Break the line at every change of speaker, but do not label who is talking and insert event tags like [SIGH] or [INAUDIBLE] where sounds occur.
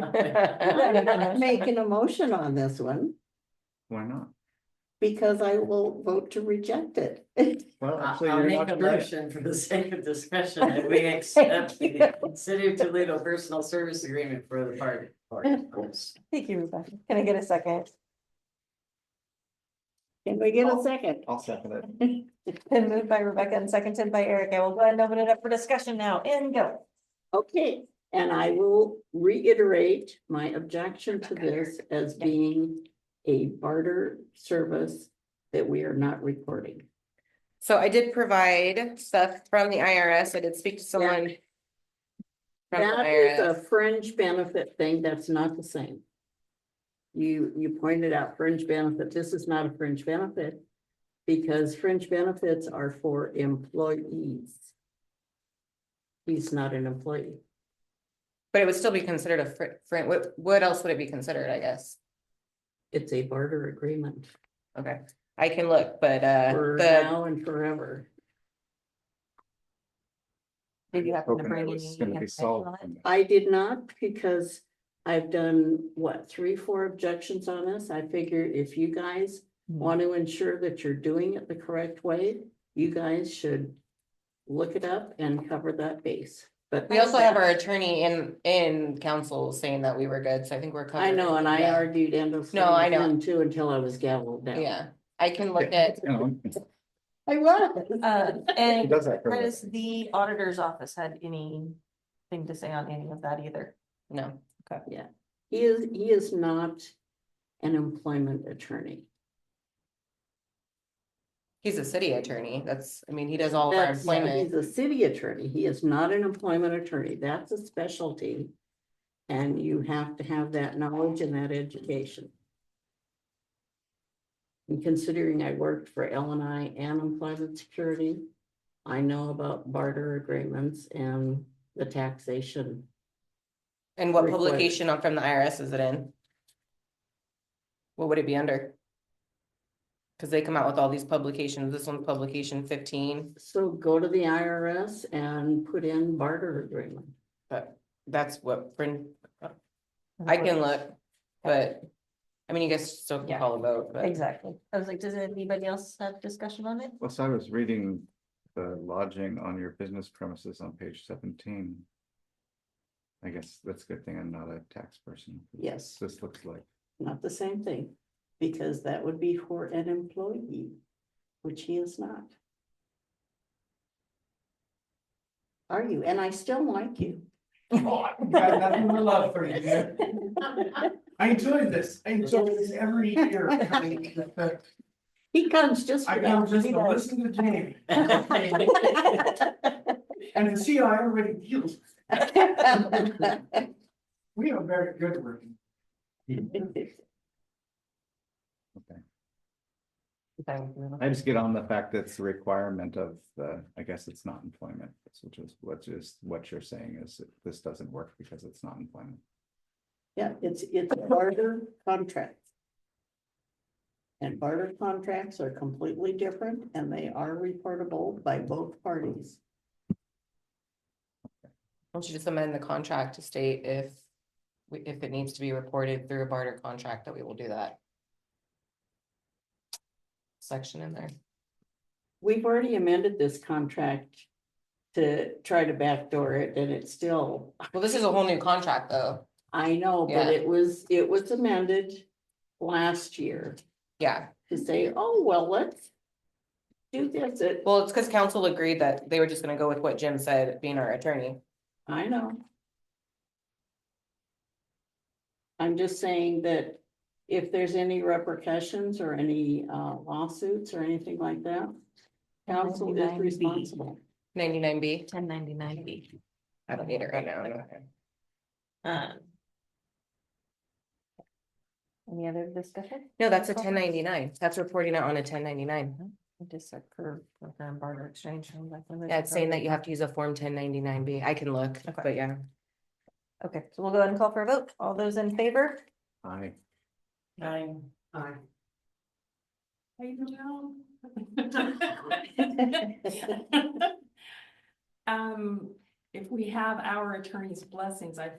I'm not
Why
making a motion on this one
not?
because I will vote to reject it.
Well,
I'll
actually,
I'll
you're
make
not
a
correct.
motion for the sake of discussion that
[LAUGHS]
we accept the City of Toledo Personal Service Agreement for the party.
Thank you, Rebecca. Can I get a second?
Can we get a second?
I'll second it.
Been moved by Rebecca and seconded by Eric. I will go ahead and open it up for discussion now and go.
Okay, and I will reiterate my objection to this as
Yeah.
being a barter service that we are not recording.
So I did provide stuff from the IRS. I did speak to someone. From the
That is a
IRS.
fringe benefit thing. That's not the same. You, you pointed out fringe benefit. This is not a fringe benefit. Because fringe benefits are for employees. He's not an employee.
but it would still be considered a fr- fr- what, what else would it be considered, I guess?
It's a barter agreement
Okay, I can look, but, uh,
for
the,
now and forever.
Did you happen to
Hoping it
bring?
was
any
gonna be
information
solved.
on it?
I did not because I've done, what, three, four objections on this? I figure if you guys
Hmm.
want to ensure that you're doing it the correct way, you guys should look it up and cover that base, but.
we also have our attorney in, in council saying that we were good, so I think we're covered.
I know, and I
Yeah.
argued endlessly.
No, I
with
know.
them Too, until I was gavelled down.
Yeah, I can look at,
You know,
I was.
Uh,
He
and
does that. for a
has
living.
the auditor's office had anything to say on any of that either?
no,
He is, he is not an employment attorney.
he's a city attorney. That's, I mean, he does all of our
That's, he's
employment.
a city attorney. He is not an employment attorney. That's a specialty. And you have to have that knowledge and that education. And considering I worked for L and I and Employment Security, I know about barter agreements and the taxation.
And what
required.
publication on- from the IRS is it in? What would it be under? Cause they come out with all these publications. This one's publication fifteen,
So go to the IRS and put in barter agreement.
but that's what, frin- I can look, but. I mean, you guys still can
Yeah.
call a vote, but.
Exactly. I was like, does anybody else have discussion on it?
Well, so I was reading the lodging on your business premises on page seventeen. I guess that's a good thing I'm not a tax person.
Yes,
This looks like,
not the same thing, because that would be for an employee, which he is not. Are you? And I still like you.
Oh, I've got nothing but love for you, man. I enjoy this, I enjoy this every year.
He comes just.
I
for
come
that.
just
He
to
does.
[LAUGHS] listen to Jamie
[LAUGHS]
and to see how everybody feels. We are very good working.
I just get on the fact that it's a requirement of the, I guess it's not employment, which is, which is what you're saying is that this doesn't work because it's not employment.
[LAUGHS] Yeah, it's, it's a barter contract. And barter contracts are completely different and they are reportable by both parties.
Why don't you just amend the contract to state if, we- if it needs to be reported through a barter contract, that we will do that. Section in there.
We've already amended this contract to try to backdoor it and it's still,
Well, this is a whole new contract, though.
I know, but
Yeah.
it was, it was amended last year
Yeah,
to say, oh, well, let's do this. It-
well, it's because council agreed that they were just gonna go with what Jim said, being our attorney.
I know. I'm just saying that if there's any repercussions or any uh, lawsuits or anything like that, council is
99B.
responsible.
Ninety-nine B,
Ten ninety-nine B.
I don't need it right now.
Um. Any other discussion?
No, that's a ten ninety-nine. That's reporting it on a ten ninety-nine.
Just a curve program barter exchange. I'm like, when there's
Yeah,
a
it's saying that
program-
you have to use a form ten ninety-nine B. I can look,
Okay.
but yeah.
Okay, so we'll go ahead and call for a vote. All those in favor?
I,
Nine.
Um, if we have our attorney's blessings, I